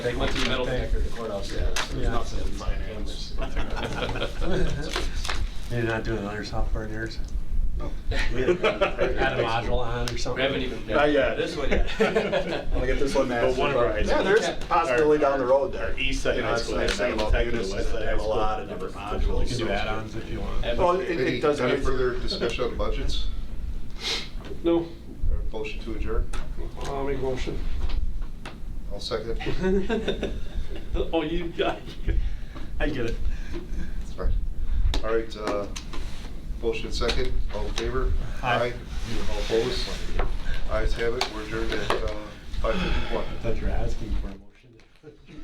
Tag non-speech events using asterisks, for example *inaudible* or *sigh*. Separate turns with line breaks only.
They went to the metal detector at the courthouse, yeah. There's
Yeah.
nothing in
*laughs*
finance.
*laughs* You're not doing other software in yours?
We
*laughs*
haven't done that.
Add a module on or something?
We haven't even.
Not yet.
This one
*laughs*
*laughs*
yet.
I'm gonna get this one mastered.
But one of our high
but- Yeah,
schools-
there's a possibility down the road there.
Our east side
You know,
high
that's
school
the nice
had
thing
metal
about
detector,
Unis
west
is
side
they have
high
a
school
lot of
had
different
metal detector.
modules.
You can do add-ons if you want.
And-
Well, it,
Any
it does.
any further discussion on budgets?
No,
Or Motion to adjourn?
I'll make a *laughs* motion.
I'll second.
Oh, you got
*laughs*
I get it.
It's fine. All right, uh, motion second, all in favor?
Aye.
All opposed? Ayes have it, we're adjourned at uh, five fifty-one.
I thought you were asking for one.